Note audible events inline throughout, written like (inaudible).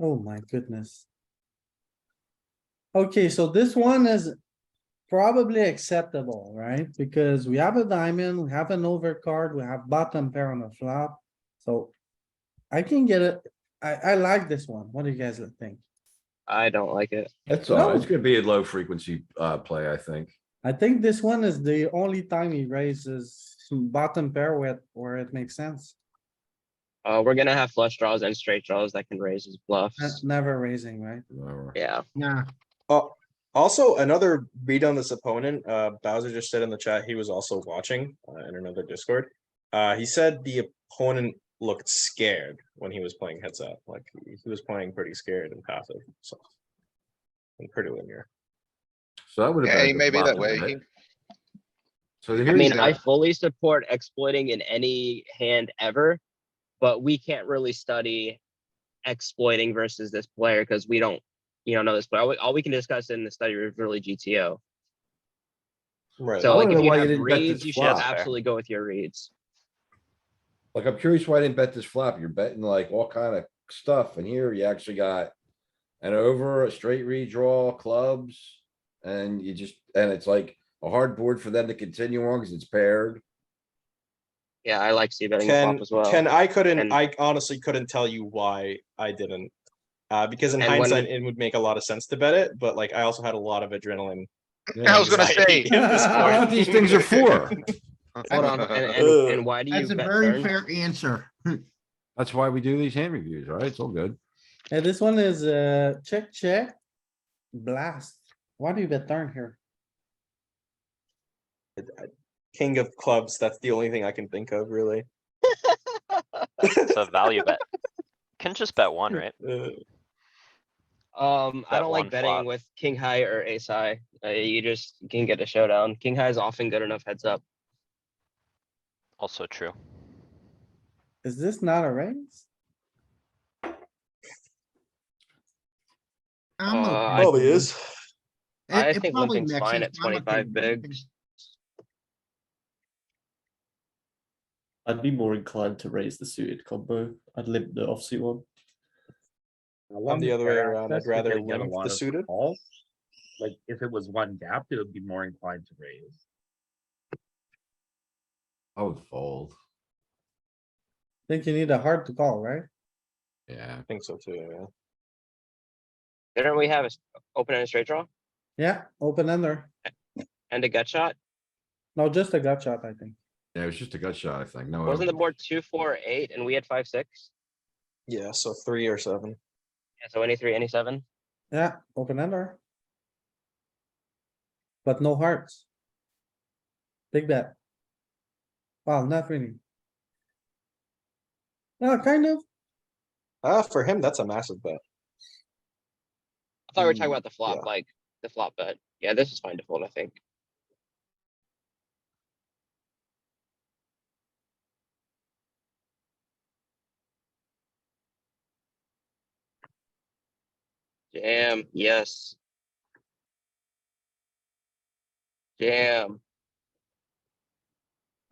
Oh my goodness. Okay, so this one is probably acceptable, right? Because we have a diamond, we have an overcard, we have bottom pair on the flop, so. I can get it, I, I like this one, what do you guys think? I don't like it. That's No. all. It's gonna be a low frequency uh play, I think. I think this one is the only time he raises some bottom pair where, where it makes sense, Uh, we're gonna have flush draws and straight draws that can raise his that's bluffs. never raising, right? Or- Yeah, Nah, Also, another read on this opponent, uh, Bowser just said in the chat, he was also watching, uh, in another Discord. Uh, he said the opponent looked scared when he was playing heads up, like, he he was playing pretty scared and passive, so. And pretty linear. So that would have. Yeah, he may be that way. He- So I here's. mean, the- I fully support exploiting in any hand ever, but we can't really study exploiting versus this player because we don't, you know, know this player. All we, all we can discuss in the study is really GTO. Right. So I like wanna if know you why you have didn't bet this reads, you should flop. absolutely go with your reads. Like, I'm curious why I didn't bet this flop. You're betting like all kind of stuff and here you actually got. An over, a straight redraw, clubs, and you just, and it's like a hard board for them to continue on because it's paired. Yeah, I like C betting the Ken, flop as well. Ken, I couldn't, And- I honestly couldn't tell you why I didn't. Uh, because in And when we- hindsight, it would make a lot of sense to bet it, but like, I also had a lot of adrenaline. (laughs) I was gonna anxiety say, at this Why That's point. what these things are for. (laughs) (laughs) Hold on, and, Ugh. and, and why do you that's a bet very turn? fair answer. That's why we do these hand reviews, right? It's all good. Yeah, this one is uh check, check. Blast. Why do you bet turn here? King of clubs, that's the only thing I can think of, really. It's a value bet. Can just bet one, right? Uh, Um, I don't Bet one like flop. betting with king high or ace high. Uh, you just can get a showdown. King high is often good enough heads up. Also true. Is this not a raise? I'm Uh, okay. I- Probably is. It- I it think probably limping's mixes, fine at I'm okay twenty-five with limping. bigs. I'd be more inclined to raise the suited combo. I'd limp the offsuit one. I'm the other way around. I'd rather limp the suited. Like, if it was one gap, it would be more inclined to raise. I would Oh, fold. Think you need a hard to call, right? Yeah. I think so too, yeah. Didn't we have a s- open and a straight draw Yeah, open ender. and a gut shot? No, just a gut shot, I think. Yeah, it was just a gut shot, I think. No. Oh. Wasn't the overboard. board two, four, eight, and we had five, six? Yeah, so three or seven. Yeah, so any three, any seven? Yeah, open ender. But no hearts. Big bet. Well, not really. Well, kind of. Ah, for him, that's a massive bet. I thought we were talking about the Mm, yeah. flop, like the flop bet. Yeah, this is fine to fold, I think. Jam, yes. (laughs) Jam,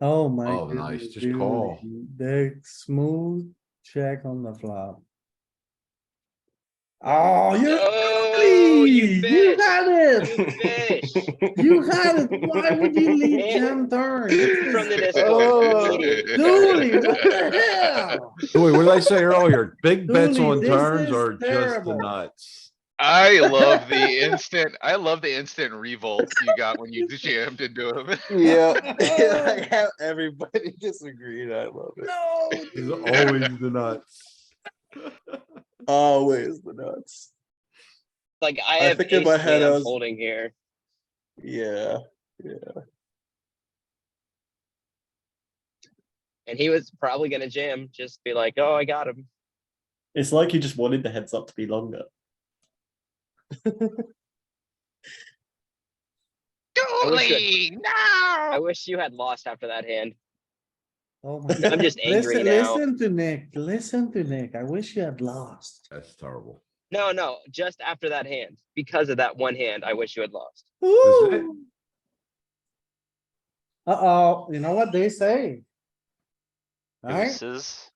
Oh my. Oh, nice, goodness, just dude. call. Big smooth check on the flop. Oh, you. No, Oh, you ugly! You bitch. had (laughs) it. fish. (laughs) You had it. Why would you leave (laughs) jam Man. turn? From the Discord. Oh, (laughs) (laughs) (laughs) Dooley, what the hell? Wait, what did I say earlier? (laughs) Big bets Dooley, on this turns is are just the terrible. nuts. I love the instant, I love the instant revolt you got when you jammed into him. (laughs) Yeah, (laughs) how everybody (laughs) disagreed. I love it. No. It's always the nuts. Always the nuts. Like I I have think in my ace head I hand was- folding here. Yeah, And he was probably gonna jam, just be like, oh, I got him. It's like he just wanted the heads up to be longer. wish that- Dooley, I no! wish you had lost after that hand. Oh my I'm God. just angry Listen, now. listen to Nick, listen to Nick. I wish you had lost. That's terrible. No, no, just after that hand. Because of that one hand, I wish you had lost. Was it? Ooh. Uh-oh, you know what they say? Right? Deuces,